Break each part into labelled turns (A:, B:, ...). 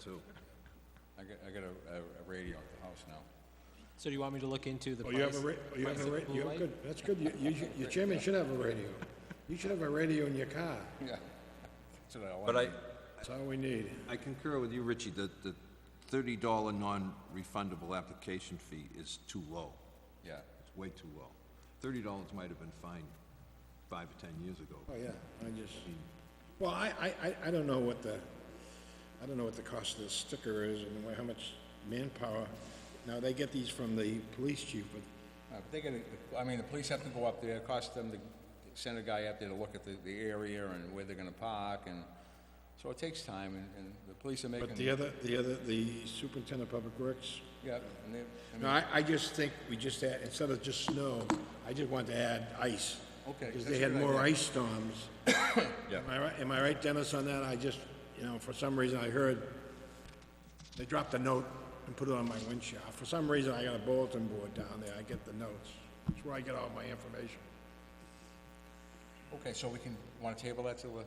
A: too.
B: I got, I got a, a- a radio at the house now.
C: So do you want me to look into the
D: Oh,
C: price?
D: you have a, ra- oh, you have
C: price
D: a,
C: of
D: ra-
C: blue
D: you have,
C: light?
D: good, that's good, you, you, should- your chairman should have a radio. You should have a radio in your car,
B: Yeah. That's what I
A: But
B: wanted.
A: I,
D: that's all we need.
A: I concur with you, Richie, that the thirty dollar non-refundable application fee is too low.
B: Yeah,
A: It's way too low. Thirty dollars might have been fine five or ten years ago.
D: Oh, yeah, I just, well, I, I, I- I don't know what the, I don't know what the cost of the sticker is and wha- how much manpower. Now, they get these from the police chief, but
B: Uh, but they gotta, I mean, the police have to go up there, it costs them to send a guy up there to look at the, the area and where they're gonna park, and, so it takes time, and, and the police are making.
D: but the other, the other, the superintendent of public works.
B: Yeah, and they, I mean,
D: No, I, I just think we just had, instead of just snow, I just wanted to add ice.
B: Okay,
D: Because
B: that's
D: they
B: a
D: had
B: good
D: more
B: idea.
D: ice storms. Am I right, am I right, Dennis, on that? I just, you know, for some reason I heard, they dropped a note and put it on my windshield. For some reason, I got a bulletin board down there, I get the notes. That's where I get all my information.
B: okay, so we can, wanna table that till, uh,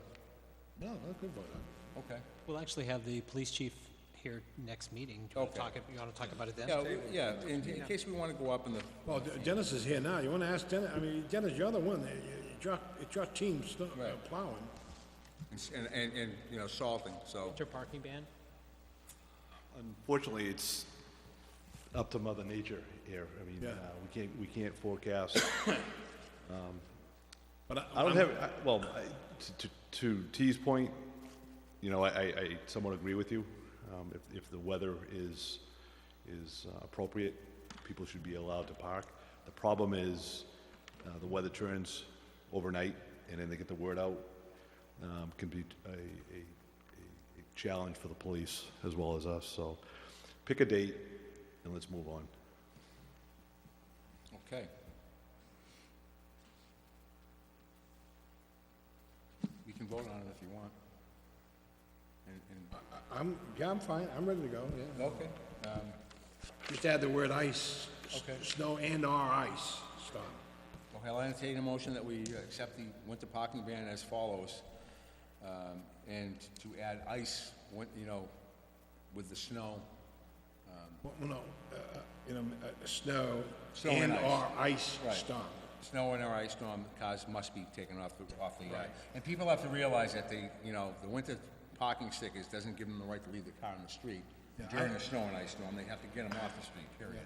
D: No, not good for
B: okay.
C: We'll actually have the police chief here next meeting. Do you want
B: Okay.
C: to talk, ab- you want to talk about it then?
B: Yeah, we- yeah, in, in case we wanna go up in the,
D: Well, De- Dennis is here now, you wanna ask Dennis, I mean, Dennis, you're the one, that- it's your, it's your team sto- uh,
B: Right.
D: plowing.
B: and, and, and, you know, salting, so,
C: Winter parking ban?
E: Fortunately, it's up to Mother Nature here. I mean,
D: Yeah.
E: uh, we can't, we can't forecast. um,
D: But I,
E: I don't have, I- well, I- to- to- to T's point, you know, I- I I somewhat agree with you. Um, If if the weather is, is uh, appropriate, people should be allowed to park. The problem is, uh, the weather turns overnight, and then they get the word out, um, can be a- a a- a challenge for the police as well as us, so pick a date and let's move on.
B: okay. You can vote on it if you want. And, and,
D: I'm, yeah, I'm fine, I'm ready to go, yeah.
B: okay, um,
D: Just add the word ice, s-
B: Okay.
D: snow and or ice storm.
B: Okay, I'll entertain a motion that we accept the winter parking ban as follows, um, and to add ice, win- you know, with the snow.
D: Well, no, uh, you know, uh, snow
B: Snow and ice.
D: and or ice
B: Right.
D: storm.
B: Snow and or ice storm, cars must be taken off the, off the, uh, and people have to realize that they, you know, the winter parking stickers doesn't give them the right to leave the car in the street
D: Yeah, I-
B: during a snow and ice storm, they have to get them off the street, period.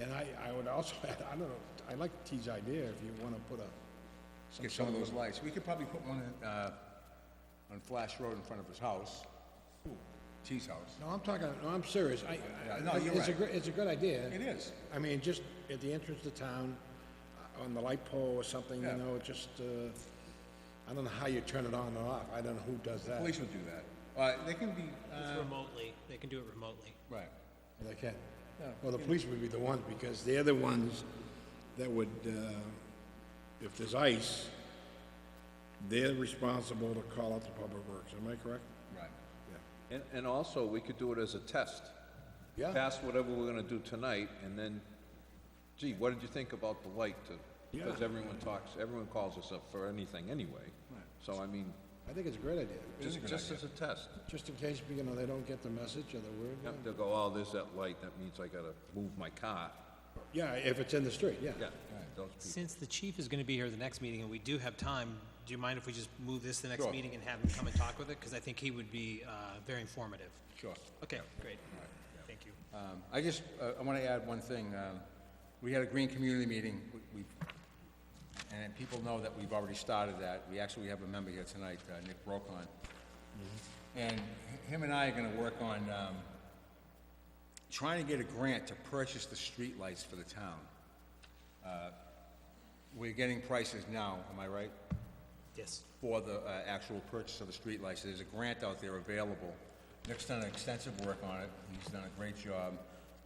D: And I, I would also add, I don't know, I like T's idea if you wanna put a,
B: Get some of those lights, we could probably put one in, uh, on Flash Road in front of his house, T's house.
D: no, I'm talking, no, I'm serious, I, I.
B: no, you're
D: It's a,
B: right.
D: gr- it's a good idea.
B: It is.
D: I mean, just at the entrance to town, uh, on the light pole or something, you
B: Yeah.
D: know, just, uh, I don't know how you turn it on or off, I don't know who does that.
B: Police would do that. Uh, they can be,
C: It's
B: uh,
C: remotely, they can do it remotely.
B: right.
D: Well, They can. Well, the police would be the ones, because they're the ones that would, uh, if there's ice, they're responsible to call out the public works, am I correct?
B: Right.
A: And, and also, we could do it as a test.
D: Yeah.
A: Pass whatever we're gonna do tonight, and then, gee, what did you think about the light to? Because
D: Yeah.
A: everyone talks, everyone calls us up for anything anyway. So I mean,
D: I think it's a great idea,
A: just, just as a test.
D: just in case, you know, they don't get the message or the word. yeah.
A: They'll go, oh, there's that light, that means I gotta move my car.
D: Yeah, if it's in the street, yeah.
A: Yeah, those people.
C: Since the chief is going to be here the next meeting and we do have time, do you mind if we just move this to the next meeting and have him come and talk with it? Because I think he would be uh, very informative.
B: Sure.
C: Okay, great. Thank you.
B: Um, I just, uh, I want to add one thing. Um, We had a green community meeting, We- we, and people know that we've already started that. We actually have a member here tonight, uh, Nick Brokon. And h- him and I are going to work on um, trying to get a grant to purchase the streetlights for the town. Uh, We're getting prices now, am I right?
C: Yes.
B: for the uh, actual purchase of the streetlights. There's a grant out there available. Nick's done extensive work on it. He's done a great job.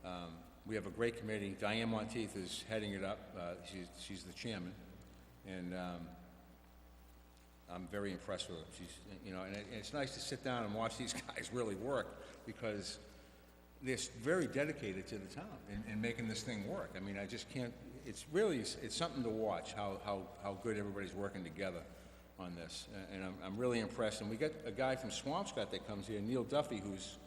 B: Um, We have a great committee. Diane Monteith is heading it up. Uh, She's she's the chairman. And um, I'm very impressed with her. She's, you know, and it- and it's nice to sit down and watch these guys really work because they're s- very dedicated to the town and, and making this thing work. I mean, I just can't, it's really, it's it's something to watch, how, how, how good everybody's working together on this. A- And I'm, I'm really impressed. And we got a guy from Swampscott that comes here, Neil Duffy, who's